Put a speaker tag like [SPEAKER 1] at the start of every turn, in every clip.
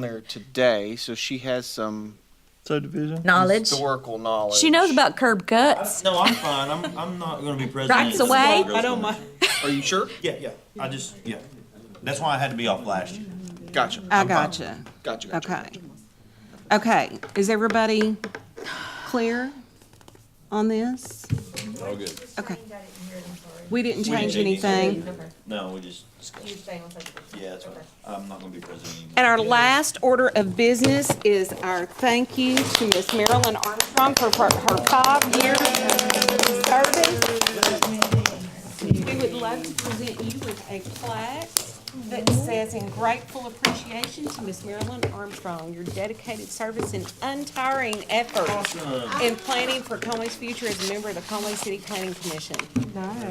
[SPEAKER 1] there today, so she has some
[SPEAKER 2] subdivision.
[SPEAKER 3] knowledge.
[SPEAKER 1] historical knowledge.
[SPEAKER 3] She knows about curb cuts.
[SPEAKER 4] No, I'm fine. I'm, I'm not gonna be president.
[SPEAKER 3] Rights away.
[SPEAKER 4] I don't mind.
[SPEAKER 1] Are you sure?
[SPEAKER 4] Yeah, yeah. I just, yeah. That's why I had to be off last year.
[SPEAKER 1] Gotcha.
[SPEAKER 5] I gotcha.
[SPEAKER 1] Gotcha. Gotcha.
[SPEAKER 5] Okay. Okay, is everybody clear on this?
[SPEAKER 4] All good.
[SPEAKER 5] Okay. We didn't
[SPEAKER 4] We didn't
[SPEAKER 5] change
[SPEAKER 4] change
[SPEAKER 5] anything.
[SPEAKER 4] No, we just discussed. Yeah, that's right. I'm not gonna be president anymore.
[SPEAKER 5] And our last order of business is our thank you to Miss Marilyn Armstrong for her her five years of service. We would love to present you with a plaque that says in grateful appreciation to Miss Marilyn Armstrong, your dedicated service and untiring effort in planning for Conway's future as a member of the Conway City Planning Commission.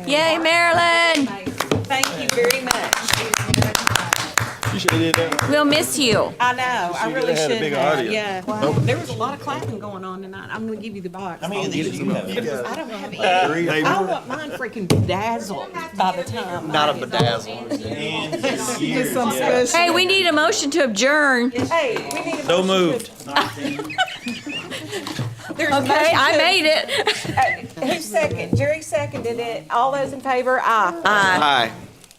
[SPEAKER 3] Yay, Marilyn!
[SPEAKER 5] Thank you very much.
[SPEAKER 2] You should have did that.
[SPEAKER 3] We'll miss you.
[SPEAKER 5] I know, I really
[SPEAKER 2] had a
[SPEAKER 5] should
[SPEAKER 2] big
[SPEAKER 5] have,
[SPEAKER 2] audience.
[SPEAKER 5] yeah. There was a lot of clapping going on tonight. I'm gonna give you the box.
[SPEAKER 4] How many of these do you have?
[SPEAKER 5] I don't have any.
[SPEAKER 2] Hey,
[SPEAKER 5] I want mine freaking bedazzled by the time.
[SPEAKER 1] Not a bedazzle.
[SPEAKER 4] And this year, yeah.
[SPEAKER 3] Hey, we need a motion to adjourn.
[SPEAKER 5] Hey, we need a.
[SPEAKER 4] So moved.
[SPEAKER 5] There's a
[SPEAKER 3] Okay, I
[SPEAKER 5] motion.
[SPEAKER 3] made it.
[SPEAKER 5] Who's second? Jerry seconded it. All those in favor, aye.
[SPEAKER 3] Aye.
[SPEAKER 1] Hi.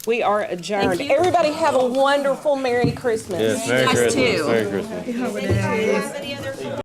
[SPEAKER 5] We are adjourned.
[SPEAKER 3] Thank you.
[SPEAKER 5] Everybody have a wonderful Merry Christmas.
[SPEAKER 2] Merry
[SPEAKER 3] Us
[SPEAKER 2] Christmas.
[SPEAKER 3] too.
[SPEAKER 2] Merry Christmas.